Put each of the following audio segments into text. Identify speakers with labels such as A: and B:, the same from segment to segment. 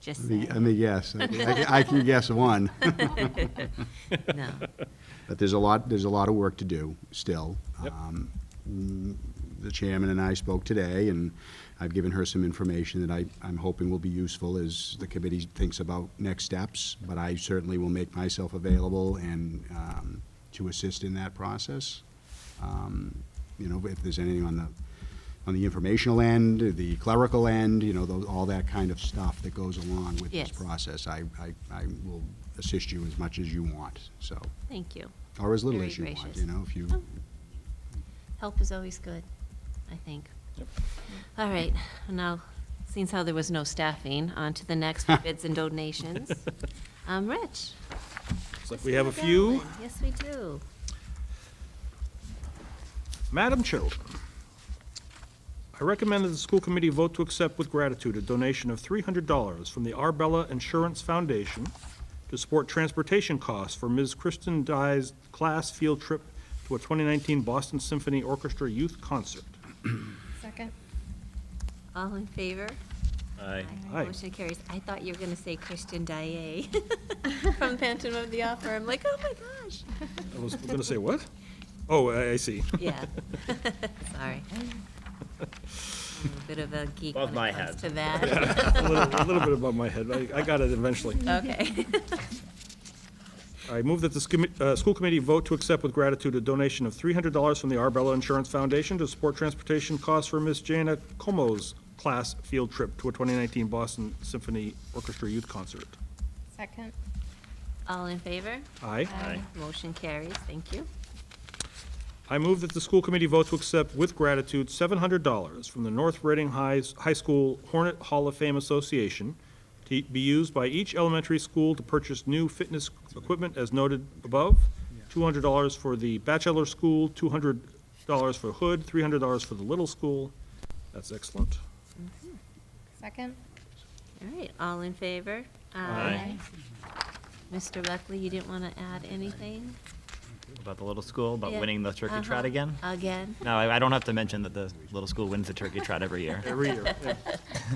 A: Just
B: Let me-
A: saying.
B: let me guess. I can- I can guess one.
A: No.
B: But there's a lot, there's a lot of work to do still.
C: Yep.
B: Um, The chairman and I spoke today, and I've given her some information that I, I'm hoping will be useful as the committee thinks about next steps, but I certainly will make myself available and, um, to assist in that process. Um, You know, if there's anything on the, on the informational end, the clerical end, you know, tho- all that kind of stuff that goes along with this
A: Yes.
B: process, I, I, I will assist you as much as you want, so.
A: Thank you.
B: Or as little
A: Very
B: as you want,
A: gracious.
B: you know, if you,
A: Oh. Help is always good, I think.
C: Yep.
A: All right, now, since how there was no staffing, on to the next for bids and donations. Um, Rich?
C: Looks like
A: let's
C: we
A: do
C: have a
A: that
C: few.
A: one. Yes, we do.
C: Madam Chilton, I recommend that the school committee vote to accept with gratitude a donation of $300 from the Arbella Insurance Foundation to support transportation costs for Ms. Kristen Dye's class field trip to a 2019 Boston Symphony Orchestra Youth Concert.
D: Second.
A: All in favor?
E: Aye.
C: Aye.
A: Motion carries. I thought you were going to say Christian Daae from Phantom of the Opera. I'm like, oh my gosh.
C: I was going to say what? Oh, I I see.
A: Yeah, sorry. I'm a Bit of a geek
E: Above
A: when
E: my
A: it comes to
E: head.
A: that.
C: A little- a little bit above my head. I I got it eventually.
A: Okay.
C: I move that the scommi- uh, school committee vote to accept with gratitude a donation of $300 from the Arbella Insurance Foundation to support transportation costs for Miss Jana Como's class field trip to a 2019 Boston Symphony Orchestra Youth Concert.
D: Second.
A: All in favor?
C: Aye.
E: Aye.
A: Motion carries, thank you.
C: I move that the school committee vote to accept with gratitude $700 from the North Reading High High School Hornet Hall of Fame Association to be used by each elementary school to purchase new fitness equipment as noted above, $200 for the bachelor school, $200 for Hood, $300 for the little school. That's excellent.
D: Second.
A: All right, all in favor?
E: Aye.
A: Mr. Buckley, you didn't want to add anything?
E: About the little school, about
A: Yeah.
E: winning the turkey trot
A: Uh-huh.
E: again?
A: Again?
E: No, I I don't have to mention that the little school wins the turkey trot every year.
C: Every year. yeah.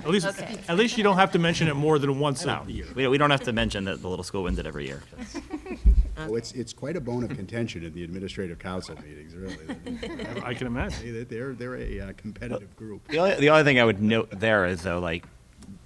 C: At least,
A: Okay.
C: at least you don't have to mention it more than once a year.
E: We we don't have to mention that the little school wins it every year.
B: oh, it's, it's quite a bone of contention in the administrative council meetings, really.
C: I can imagine.
B: They- They're, they're a uh, competitive group.
E: The only, the only thing I would note there is though, like,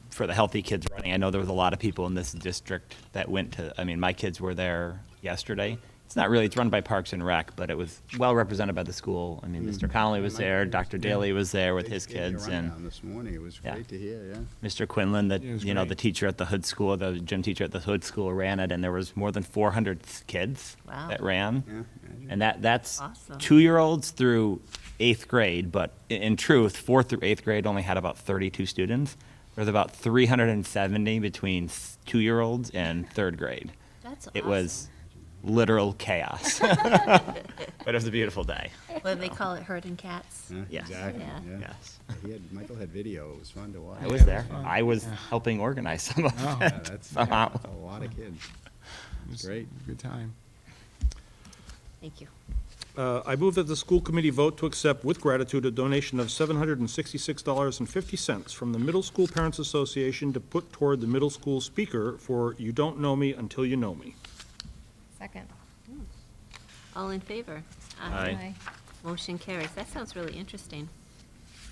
E: for the healthy kids running, I know there was a lot of people in this district that went to, I mean, my kids were there yesterday. It's not really, it's run by Parks and Rec, but it was well represented by the school. I
B: Hmm.
E: mean, Mr. Connolly was there, Dr. Daly was there with
B: They
E: his
B: gave me a
E: kids and.
B: rundown This morning, it was
E: Yeah.
B: great to hear, yeah.
E: Mr. Quinlan, the,
F: It was
E: you know, the
F: great.
E: teacher at the hood school, the gym teacher at the hood school ran it, and there was more than 400 kids
A: Wow.
E: that ran.
B: Yeah, imagine.
E: And that, that's
A: Awesome.
E: two-year-olds through eighth grade, but i- in truth, fourth through eighth grade only had about 32 students. There's about 370 between s- two-year-olds and third grade.
A: That's
E: It was literal chaos. But it was a beautiful day,
A: awesome. What do they call it, herding cats?
B: Yeah,
E: Yes.
B: Exactly,
A: Yeah.
B: yeah.
E: yes.
B: He had, Michael had video, it was fun to watch.
E: I was there. I was helping organize some of
F: Oh.
B: Yeah,
E: it.
B: That's, that's
E: Somehow.
B: a lot of kids.
F: was
B: Great.
F: a Good time.
A: Thank you.
C: Uh, I move that the school committee vote to accept with gratitude a donation of $766.50 from the Middle School Parents Association to put toward the middle school speaker for You Don't Know Me Until You Know Me.
D: Second.
A: All in favor?
E: Aye.
A: Motion carries. That sounds really interesting.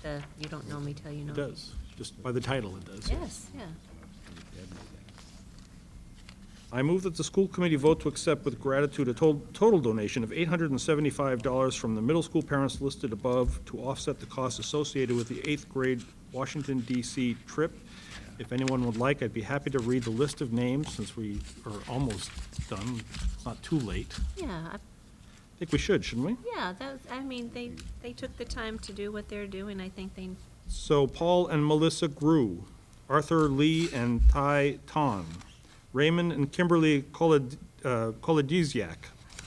A: The, you don't know me till you know
C: It
A: me.
C: does, just by the title it does.
A: Yes, yeah.
C: I move that the school committee vote to accept with gratitude a total total donation of $875 from the middle school parents listed above to offset the costs associated with the eighth grade Washington DC trip. If anyone would like, I'd be happy to read the list of names since we are almost done. It's not too late.
A: Yeah, I-
C: I think we should, shouldn't we?
A: yeah, that was, I mean, they, they took the time to do what they're doing. I think they,
C: So Paul and Melissa Grew, Arthur Lee and Ty Ton, Raymond and Kimberly Kolod- uh, Kolodisiak.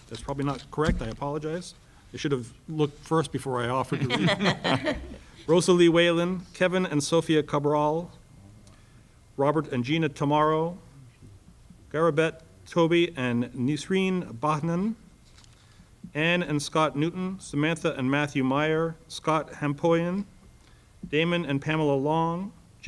C: That's probably not correct, I apologize. I should have looked first before I offered to read. Rosalie Whalen, Kevin and Sophia Cabral, Robert and Gina Tamaro, Garabet Toby and Nisreen Bahnan, Anne and Scott Newton, Samantha and Matthew Meyer, Scott Hampoyan, Damon and Pamela Long,